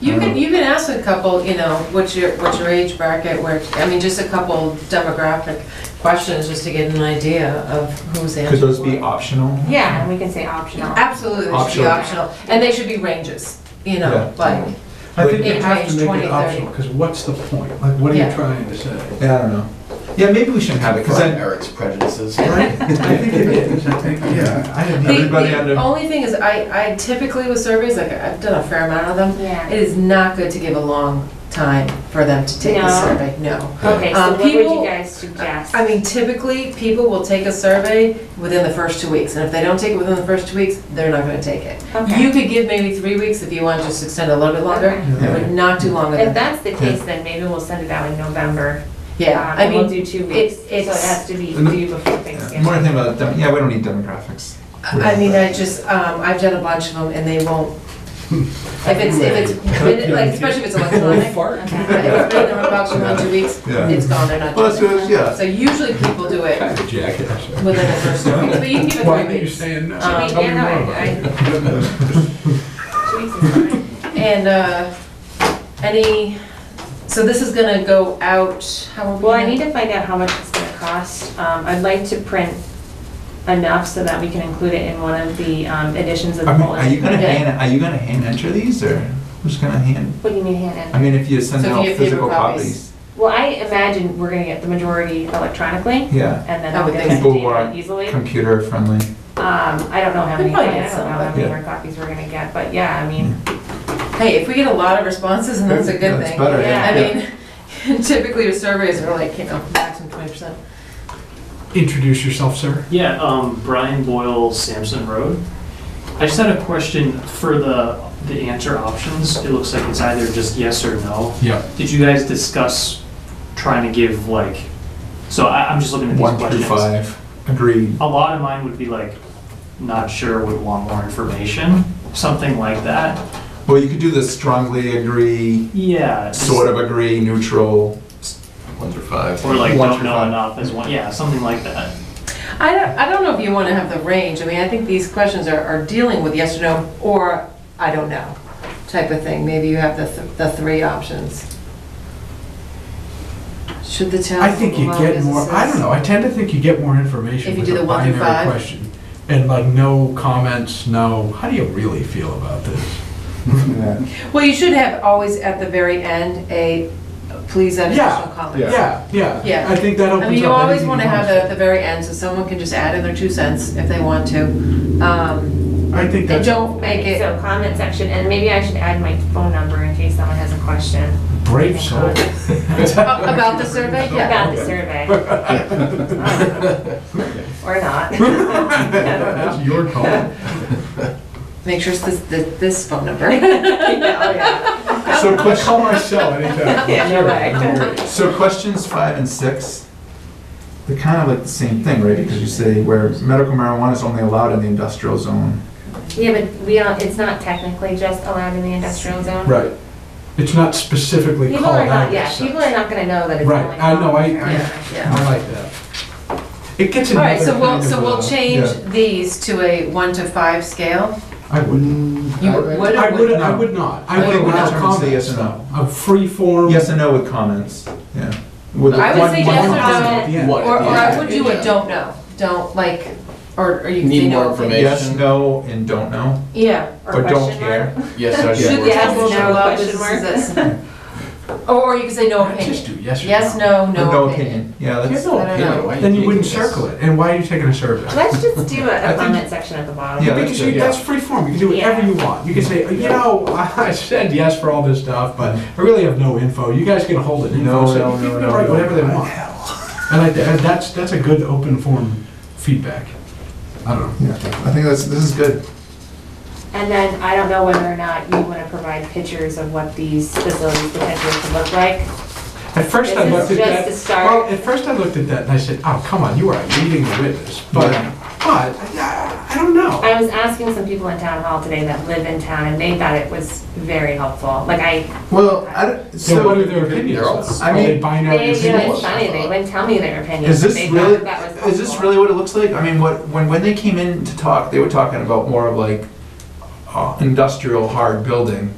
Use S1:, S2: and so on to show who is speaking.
S1: You
S2: Uh-huh.
S1: can, you can ask a couple, you know, what's your, what's your age bracket, where, I mean, just a couple demographic questions, just to get an idea of who's answering.
S2: Could those be
S1: what.
S2: optional?
S3: Yeah, and we can say optional.
S1: Absolutely, they should be
S2: Optional.
S1: optional, and they should be ranges, you know,
S2: Yeah.
S1: like,
S4: I think
S1: It
S4: you have
S1: ranges
S4: to make
S1: 20,
S4: it optional,
S1: 30.
S4: because what's the point? Like, what are you
S1: Yeah.
S4: trying to say?
S2: Yeah, I don't know. Yeah, maybe we shouldn't have it, because
S5: Confront
S2: then,
S5: Eric's prejudices.
S4: Right? I think it is, I think, yeah.
S2: I didn't
S1: The-
S2: everybody
S1: The
S2: under,
S1: only thing is, I, I typically with surveys, like, I've done a fair amount of them, it
S3: Yeah.
S1: is not good to give a long time for them to take the
S3: No.
S1: survey, no. Um,
S3: Okay, so what would
S1: people-
S3: you guys suggest?
S1: I mean, typically, people will take a survey within the first two weeks, and if they don't take it within the first two weeks, they're not gonna take it.
S3: Okay.
S1: You could give maybe three weeks if you want, just extend a little bit longer,
S3: Okay.
S1: but not too long.
S3: If that's the case, then maybe we'll send it out in November.
S1: Yeah,
S3: um,
S1: I
S3: and We'll
S1: mean,
S3: do two weeks, so it
S1: it's-
S3: has to be due before Thanksgiving.
S2: more thing about, dem- yeah, we don't need demographics.
S1: I mean, I just, um, I've done a bunch of them and they won't. If it's, if it's, been- like, especially if it's electronic.
S3: Okay.
S1: If it's been in the box for one, two weeks,
S2: Yeah.
S1: it's gone, they're not
S5: Well, that's,
S1: doing it.
S5: what- yeah.
S1: So usually people do it within the first two weeks, but you can give
S4: Why
S1: it
S4: are
S1: three
S4: you
S1: weeks.
S4: saying no?
S1: Um,
S4: Tell me
S3: Yeah, no,
S4: more
S3: I-
S4: about it.
S3: I- Two weeks is fine.
S1: And, uh, any, so this is gonna go out, how are we?
S3: Well, I
S1: gonna-
S3: need to find out how much it's gonna cost. Um, I'd like to print enough so that we can include it in one of the um, editions of the
S2: I mean, Are you
S3: bulletin.
S2: gonna
S1: Yeah.
S2: hand, are you gonna hand enter these, or who's gonna hand?
S3: What do you mean, Hannah?
S2: I mean, if you send
S1: So if you
S2: out
S1: get paper
S2: physical
S1: copies.
S2: copies,
S3: Well, I imagine we're gonna get the majority electronically,
S2: yeah,
S3: and then
S1: I
S3: I'll
S1: would
S3: get
S1: think
S3: that
S2: people uh, want
S3: data easily. Um,
S2: computer friendly.
S3: I don't know how
S1: We
S3: many,
S1: probably get
S3: I don't know
S1: some,
S3: how many
S2: yeah.
S3: more copies we're gonna get, but yeah, I mean,
S1: Hey, if we get a lot of responses, and that's a good
S2: That's
S1: thing.
S2: better,
S3: yeah.
S1: I mean, typically your surveys are like, you know, maximum twenty percent.
S4: Introduce yourself, sir.
S6: Yeah, um, Brian Boyle, Sampson Road. I just had a question for the, the answer options. It looks like it's either just yes or no.
S4: Yeah.
S6: Did you guys discuss trying to give like, so I, I'm just looking at these
S2: One
S6: questions.
S2: through five, agreed.
S6: A lot of mine would be like, not sure, would want more information, something like that.
S2: Well, you could do the strongly agree,
S6: Yeah. just-
S2: sort of agree, neutral. One through five.
S6: Or like,
S2: One
S6: don't
S2: through
S6: know
S2: five.
S6: enough as one, yeah, something like that.
S1: I don't, I don't know if you want to have the range. I mean, I think these questions are, are dealing with yes or no, or I don't know, type of thing. Maybe you have the, th- the three options. Should the town.
S4: I think you
S1: allow
S4: get more, I
S1: businesses-
S4: don't know, I tend to think you get more information
S1: If you
S4: with
S1: do
S4: a
S1: the one through
S4: binary
S1: five.
S4: question. And like, no comments, no, how do you really feel about this?
S2: Yeah.
S1: Well, you should have always at the very end a, please add
S4: Yeah,
S1: additional comments.
S4: yeah, yeah.
S1: Yeah.
S4: I think that opens
S1: I
S4: up.
S1: mean, you always want to have it
S4: that.
S1: at the very end, so someone can just add in their two cents if they want to. Um,
S4: I think
S1: And
S4: that's.
S1: don't make it,
S3: so comment section, and maybe I should add my phone number in case someone has a question.
S4: Brave soul.
S1: Oh, about the survey, yeah.
S3: About the survey. Or not. Yeah,
S4: That's your call.
S1: Make sure it's this, this this phone number.
S3: oh, yeah.
S2: So question,
S4: Call my cell anytime.
S3: Yeah, no way.
S2: so questions five and six, they're kind of like the same thing, right? Because you say where medical marijuana is only allowed in the industrial zone.
S3: Yeah, but we don't, it's not technically just allowed in the industrial zone.
S4: Right. It's not specifically
S3: People
S4: called
S3: are
S4: out.
S3: not, yeah,
S4: as
S3: people
S4: such.
S3: are not gonna know that it's
S4: Right,
S3: only.
S4: I know, I-
S3: Yeah.
S1: Yeah, yeah.
S4: I like that. It gets
S1: All
S4: another
S1: right, so we'll,
S4: kind
S1: so
S4: of,
S1: we'll
S4: uh,
S1: change
S2: yeah.
S1: these to a one to five scale.
S4: I wouldn't.
S1: You
S5: I-
S1: would,
S4: I
S1: or
S4: would,
S1: would?
S4: I would not.
S2: I
S4: I would
S2: think we're
S4: allow
S2: determined to say yes
S4: comments,
S2: or no.
S4: no. A free form.
S2: Yes and no with comments, yeah. With
S1: I would
S2: one-
S1: say
S2: one
S1: yes or
S2: comment.
S1: no.
S5: What?
S1: Or, or I
S5: Yeah.
S1: would do a don't know, don't like, or, or you can say
S5: Need
S1: no.
S5: more information.
S2: Yes, no, and don't know,
S1: Yeah.
S3: Or
S2: or don't
S3: question
S2: care.
S5: Yes,
S1: Should
S5: I
S1: the
S3: Yes,
S1: apples
S3: no,
S1: allow
S3: question mark.
S1: businesses this? Or, or you can say no
S4: I'd Just
S1: opinion.
S4: do yes or no.
S1: Yes, no,
S2: Or
S1: no opinion.
S2: Yeah,
S4: Yes,
S2: that's,
S4: no.
S1: I don't know.
S5: Why
S4: Then you
S5: taking
S4: wouldn't
S5: this?
S4: circle it. And why are you taking a survey?
S3: Let's just do a-
S2: think-
S3: a comment section at the bottom.
S2: Yeah.
S4: Because you,
S2: that's-
S4: that's free form. You can do whatever
S3: Yeah.
S4: you want. You can say, you know, I said yes for all this stuff, but I really have no info. You guys can hold it.
S2: No,
S4: Info, so
S2: no, no,
S4: people can
S2: no,
S4: write
S2: no.
S4: Whatever they want. And I, and that's, that's a good open form feedback. I don't know.
S2: yeah, I think that's, this is good.
S3: And then I don't know whether or not you wanna provide pictures of what these facilities potentially could look like.
S4: At first I
S3: This is
S4: looked at
S3: just
S4: that.
S3: the start.
S4: Well, at first I looked at that and I said, oh, come on, you are leading the witness. But,
S2: Yeah.
S4: but, I I don't know.
S3: I was asking some people in town hall today that live in town and they thought it was very helpful. Like I,
S2: Well, I don't,
S4: So what are
S2: so,
S4: their opinions?
S5: They're all-
S4: Are
S2: I
S4: they
S2: mean-
S4: binary
S3: they, you know,
S4: opinions?
S3: it's funny, they wouldn't tell me their opinion.
S2: is this
S3: They thought
S2: really,
S3: that was
S2: is this
S3: helpful.
S2: really what it looks like? I mean, what, when, when they came in to talk, they were talking about more of like uh, industrial hard building.